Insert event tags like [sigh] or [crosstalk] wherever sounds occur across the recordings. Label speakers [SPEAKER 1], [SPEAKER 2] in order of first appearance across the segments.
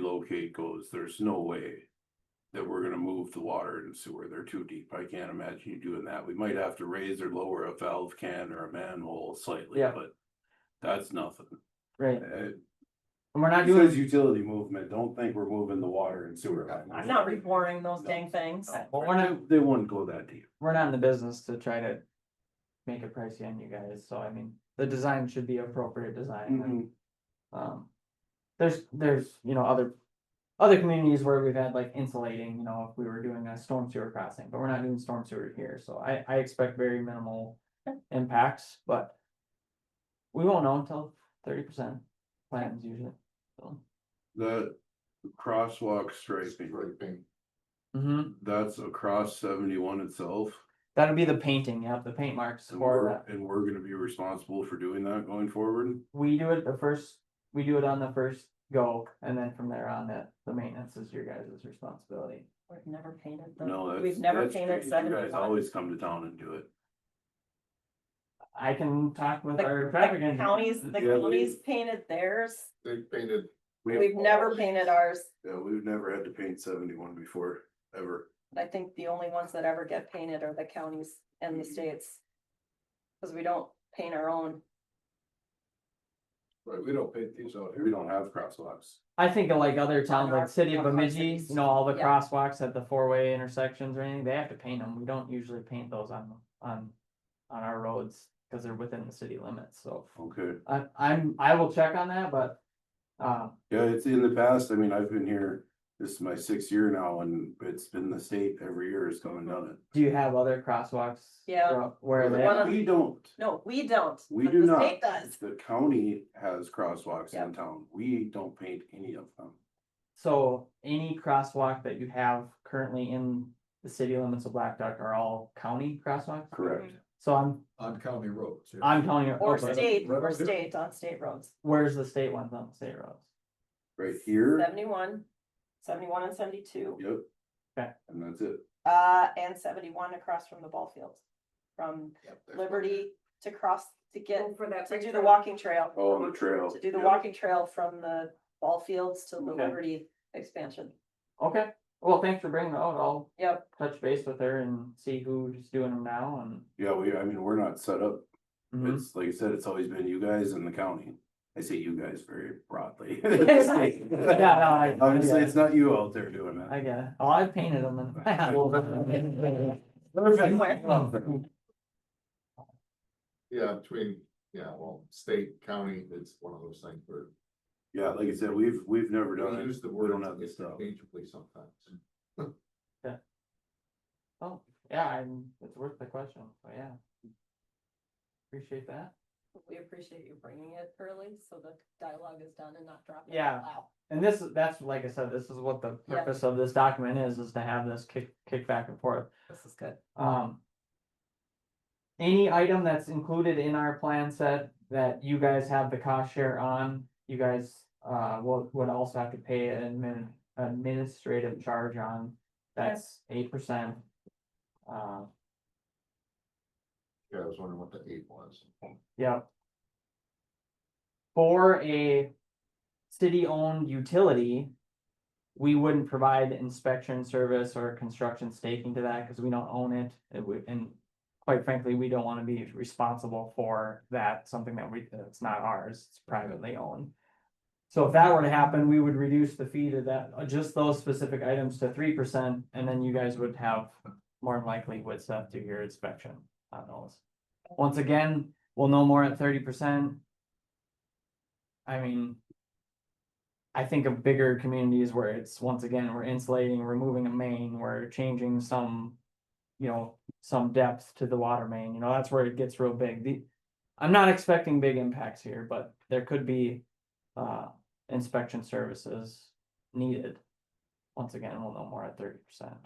[SPEAKER 1] locate goes, there's no way. That we're gonna move the water and sewer, they're too deep, I can't imagine you doing that, we might have to raise or lower a valve can or a manhole slightly,
[SPEAKER 2] Yeah.
[SPEAKER 1] but. That's nothing,
[SPEAKER 2] right,
[SPEAKER 1] Uh,
[SPEAKER 2] and we're not
[SPEAKER 1] you
[SPEAKER 2] doing,
[SPEAKER 1] as utility movement, don't think we're moving the water and sewer. line.
[SPEAKER 3] I'm not reboring those dang things.
[SPEAKER 1] No,
[SPEAKER 2] Well, we're not-
[SPEAKER 1] They wouldn't go that deep.
[SPEAKER 2] we're not in the business to try to. Make it pricey on you guys, so I mean, the design should be appropriate design,
[SPEAKER 3] Mm-hmm.
[SPEAKER 2] and
[SPEAKER 1] Mm-hmm.
[SPEAKER 2] Um, there's, there's, you know, other, other communities where we've had like insulating, you know, if we were doing a storm sewer crossing, but we're not doing storm sewer here, so I, I expect very minimal impacts, but we won't know until thirty percent plans usually, so.
[SPEAKER 1] The crosswalk striping,
[SPEAKER 4] Scraping.
[SPEAKER 1] Mm-hmm.
[SPEAKER 2] Mhm.
[SPEAKER 1] that's across seventy-one itself.
[SPEAKER 2] that'll be the painting, yeah, the paint marks
[SPEAKER 1] And
[SPEAKER 2] or
[SPEAKER 1] we're,
[SPEAKER 2] that.
[SPEAKER 1] and we're gonna be responsible for doing that going forward.
[SPEAKER 2] We do it the first, we do it on the first go, and then from there on, that, the maintenance is your guys' responsibility.
[SPEAKER 3] We've never painted
[SPEAKER 1] No,
[SPEAKER 3] them.
[SPEAKER 1] that's.
[SPEAKER 3] We've never
[SPEAKER 1] that's
[SPEAKER 3] painted
[SPEAKER 1] great. You guys
[SPEAKER 3] seventy-one.
[SPEAKER 1] always come to town and do it.
[SPEAKER 2] I can talk with
[SPEAKER 3] The-
[SPEAKER 2] our traffic
[SPEAKER 3] The
[SPEAKER 2] engineer.
[SPEAKER 3] counties, the
[SPEAKER 1] Yeah, we-
[SPEAKER 3] counties painted theirs.
[SPEAKER 4] They painted,
[SPEAKER 3] We've never painted ours.
[SPEAKER 1] Yeah, we've never had to paint seventy-one before, ever.
[SPEAKER 3] I think the only ones that ever get painted are the counties and
[SPEAKER 1] Mm.
[SPEAKER 3] the states. Cause we don't paint our own.
[SPEAKER 4] right, we don't paint these out here.
[SPEAKER 1] We don't have crosswalks.
[SPEAKER 2] I think of like other towns,
[SPEAKER 3] Or
[SPEAKER 2] like city of
[SPEAKER 3] our
[SPEAKER 2] Bemidji,
[SPEAKER 3] cities.
[SPEAKER 2] you know, all the
[SPEAKER 3] Yeah.
[SPEAKER 2] crosswalks at the four-way intersections or anything, they have to paint them, we don't usually paint those on, on. On our roads, cause they're within the city limits, so
[SPEAKER 1] Okay.
[SPEAKER 2] I, I'm, I will check on that, but. Uh,
[SPEAKER 1] Yeah, it's in the past. I mean, I've been here, this is my sixth year now and it's been the state every year has come and done
[SPEAKER 2] do you have other crosswalks?
[SPEAKER 3] Yeah.
[SPEAKER 2] throughout- Where
[SPEAKER 3] Well, one
[SPEAKER 2] they,
[SPEAKER 3] of-
[SPEAKER 1] it. We don't.
[SPEAKER 3] No, we don't.
[SPEAKER 1] We
[SPEAKER 3] but
[SPEAKER 1] do
[SPEAKER 3] the
[SPEAKER 1] not.
[SPEAKER 3] state Does.
[SPEAKER 1] The county has crosswalks in
[SPEAKER 3] Yep.
[SPEAKER 1] town. We don't paint any of them.
[SPEAKER 2] so any crosswalk that you have currently in the city limits of Black Duck are all county crosswalks?
[SPEAKER 1] Correct.
[SPEAKER 2] So I'm,
[SPEAKER 4] On county roads. yeah.
[SPEAKER 2] I'm telling you,
[SPEAKER 3] Or
[SPEAKER 2] okay,
[SPEAKER 3] state, or
[SPEAKER 4] Right.
[SPEAKER 3] state on state roads.
[SPEAKER 2] where's the state ones on the state roads?
[SPEAKER 1] Right here,
[SPEAKER 3] Seventy-one, seventy-one and seventy-two,
[SPEAKER 1] yep.
[SPEAKER 2] Okay.
[SPEAKER 1] And that's it.
[SPEAKER 3] uh, and seventy-one across from the ball field. From
[SPEAKER 4] Yep, that's-
[SPEAKER 3] Liberty to cross, to get,
[SPEAKER 5] Oh, For that.
[SPEAKER 3] to
[SPEAKER 5] bridge
[SPEAKER 3] do the
[SPEAKER 5] road.
[SPEAKER 3] walking trail.
[SPEAKER 1] Oh, the trail.
[SPEAKER 3] To do the
[SPEAKER 1] Yep.
[SPEAKER 3] walking trail from the ball fields to the
[SPEAKER 2] Okay.
[SPEAKER 3] Liberty expansion.
[SPEAKER 2] Okay, well, thanks for bringing that out, I'll
[SPEAKER 3] Yep,
[SPEAKER 2] touch base with her and see who's doing them now and.
[SPEAKER 1] Yeah, we, I mean, we're not set up.
[SPEAKER 2] Mhm.
[SPEAKER 1] It's, like I said, it's always been you guys and the county. I say you guys very
[SPEAKER 3] [laughs]
[SPEAKER 1] broadly.
[SPEAKER 2] Yeah, no, I-
[SPEAKER 1] Obviously, it's not you out there doing that.
[SPEAKER 2] I get it, oh, [laughs] I painted them and.
[SPEAKER 1] Perfect.
[SPEAKER 4] Yeah, between, yeah, well, state, county, it's one of those things where
[SPEAKER 1] Yeah, like I said, we've, we've never done
[SPEAKER 4] we
[SPEAKER 1] it.
[SPEAKER 4] use the
[SPEAKER 1] We
[SPEAKER 4] word
[SPEAKER 1] don't have the stuff.
[SPEAKER 4] interchangeably sometimes.
[SPEAKER 2] Oh, yeah, I'm, it's worth the question, but yeah. Appreciate that.
[SPEAKER 3] we appreciate you bringing it early, so the dialogue is done and not dropped.
[SPEAKER 2] Yeah.
[SPEAKER 3] Wow.
[SPEAKER 2] And this, is that's, like I said, this is what the
[SPEAKER 3] Yeah.
[SPEAKER 2] purpose of this document is, is to have this kick, kick back and forth.
[SPEAKER 3] This is good.
[SPEAKER 2] Um. Any item that's included in our plan set that you guys have the cost share on, you guys uh will would also have to pay an admin administrative charge on. That's eight percent. Uh,
[SPEAKER 4] Yeah, I was wondering what the eight was.
[SPEAKER 2] yep. For a city-owned utility. We wouldn't provide inspection service or construction staking to that because we don't own it. It would, and quite frankly, we don't want to be responsible for that, something that we, that's not ours, it's privately owned. So if that were to happen, we would reduce the fee to that, uh, just those specific items to three percent, and then you guys would have more than likely would stuff to your inspection on those. Once again, we'll know more at thirty percent. I mean. I think of bigger communities where it's, once again, we're insulating, removing a main, we're changing some. You know, some depth to the water main, you know, that's where it gets real big. The, I'm not expecting big impacts here, but there could be uh inspection services needed. Once again, we'll know more at thirty percent.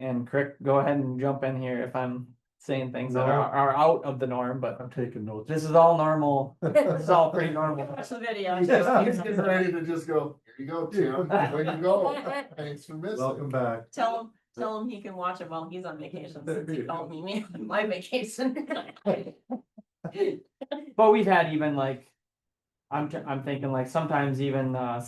[SPEAKER 2] And Crick, go ahead and jump in here if I'm saying things that are are out of the norm, but
[SPEAKER 6] I'm taking notes.
[SPEAKER 2] this is all normal. This is all pretty normal.
[SPEAKER 3] Watch the video.
[SPEAKER 4] [laughs]
[SPEAKER 6] Yeah.
[SPEAKER 4] He's getting ready to just go, here you go, Tim, there you [laughs] go, thanks for missing.
[SPEAKER 6] Welcome back.
[SPEAKER 3] Tell him, tell him he can watch it while he's on vacation, since he called me, me, [laughs] on my vacation.
[SPEAKER 2] But we've had even like I'm, t- I'm thinking like sometimes even, uh,